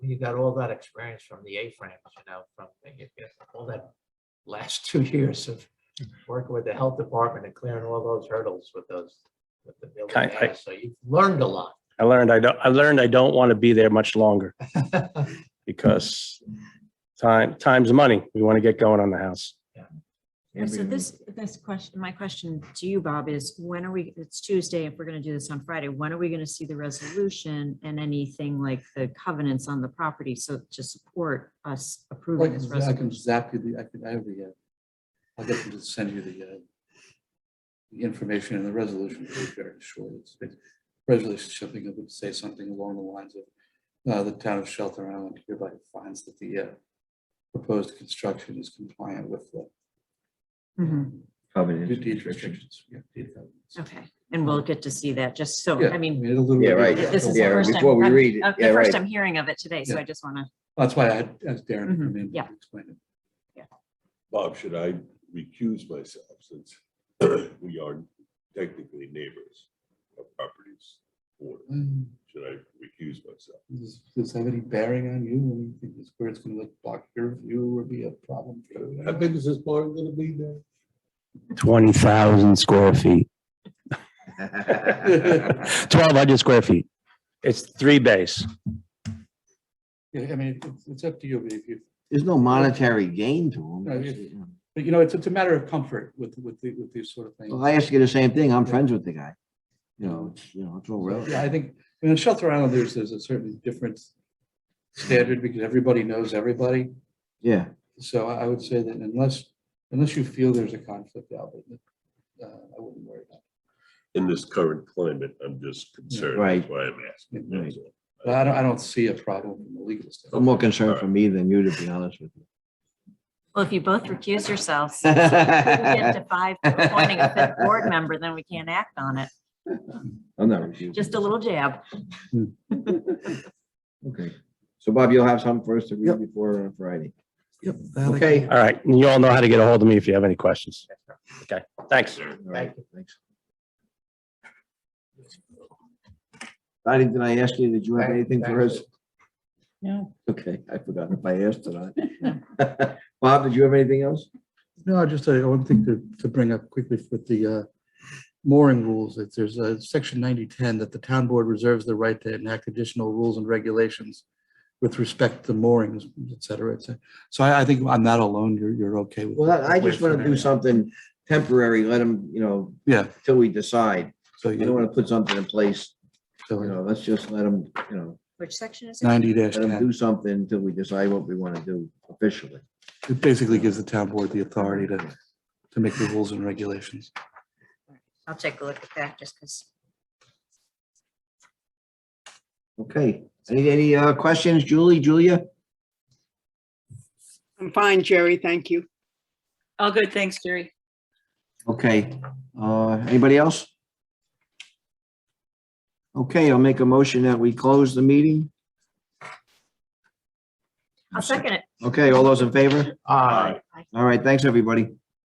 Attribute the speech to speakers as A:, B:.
A: you got all that experience from the A-frames, you know, from you get all that last two years of working with the health department and clearing all those hurdles with those, with the building.
B: I- I-
A: data. So you've learned a lot.
B: I learned I don't, I learned I don't want to be there much longer because time, time's money. We want to get going on the house.
C: Yeah, So this, this question, my question to you, Bob, is when are we, it's Tuesday, if we're gonna do this on Friday, when are we gonna see the resolution and anything like the covenants on the property, so to support us approving
D: Like,
C: this
D: I can
C: resolution?
D: zap you, the- I can, I have the, uh, I'll get them to send you the, uh, the information and the resolution is very short. It's big. Resolution, shipping, it would say something along the lines of, uh, the town of Shelter Island hereby finds that the, uh, proposed construction is compliant with the
C: Mhm,
E: Covenant.
D: deed restrictions. Yeah, deed covenants.
C: Okay, and we'll get to see that, just so,
D: Yeah,
C: I mean,
D: a little
E: Yeah,
D: bit-
E: right.
C: this is the
E: Yeah,
C: first time,
E: before we read it.
C: I'm- uh,
E: Yeah,
C: the first
E: right.
C: I'm hearing of it today, so
D: Yeah.
C: I just wanna,
D: That's why I had, as Darren to come in.
C: Mhm, yeah.
D: and explain it.
F: Bob, should I recuse myself since we are technically neighbors of properties? Or
D: Um,
F: should I recuse myself?
D: Does does this have any bearing on you? Anything that's where it's gonna like block your view or be a problem? for you?
F: How big is this bar gonna be there?
B: Twenty thousand square feet, twelve hundred square feet. It's three bays.
D: Yeah, I mean, it's, it's up to you, but if you,
E: There's no monetary gain to
D: No, it's-
E: them.
D: but you know, it's, it's a matter of comfort with, with, the- with these sort of things.
E: Well, I ask you the same thing. I'm friends with the guy. You know, it's, you know, it's all
D: So, Yeah, I
E: relative.
D: think, I mean, on Shelter Island, there's, there's a certain different standard because everybody knows everybody.
E: Yeah,
D: So I, I would say that unless, unless you feel there's a conflict, Albert, uh, I wouldn't worry about it.
F: In this current climate, I'm just concerned.
E: Right.
F: That's why I'm asking. that's all.
D: But I don't, I don't see a problem from a legal
E: I'm
D: standpoint.
E: more concerned for me than you, to be honest with you.
C: well, if you both recuse yourselves, if we get to five, appointing a fifth board member, then we can't act on it,
E: I'm not refusing.
C: just a little jab.
E: Okay. So Bob, you'll have something for us to read before uh, Friday.
D: Yep.
E: Okay.
B: All right. You all know how to get a hold of me if you have any questions. Okay, thanks.
E: All right, thanks. Donnie, did I ask you, did you have anything for us?
G: No.
E: Okay, I forgot if I asked or not. Bob, did you have anything else?
D: No, just uh, one thing to, to bring up quickly with the uh, mooring rules, that there's a section ninety ten that the town board reserves the right to enact additional rules and regulations with respect to moorings, et cetera, et cetera. So I, I think I'm not alone. You're, you're okay with.
E: Well, I I just
D: with
E: want to do
D: that.
E: something temporary, let them, you know,
D: Yeah.
E: till we decide.
D: So
E: I don't
D: you
E: want to put something in place, you
D: so
E: know, let's just let them, you know,
C: Which section is it?
D: ninety dash
E: let them
D: ten,
E: do something until we decide what we want to do officially.
D: it basically gives the town board the authority to, to make the rules and regulations.
C: I'll take a look at that, just because.
E: Okay, any, any uh, questions, Julie, Julia?
G: I'm fine, Jerry. Thank you. All good. Thanks, Jerry.
E: Okay, uh, anybody else? Okay, I'll make a motion that we close the meeting.
C: I'll second it.
E: Okay, all those in favor?
A: All right.
E: All right, thanks, everybody.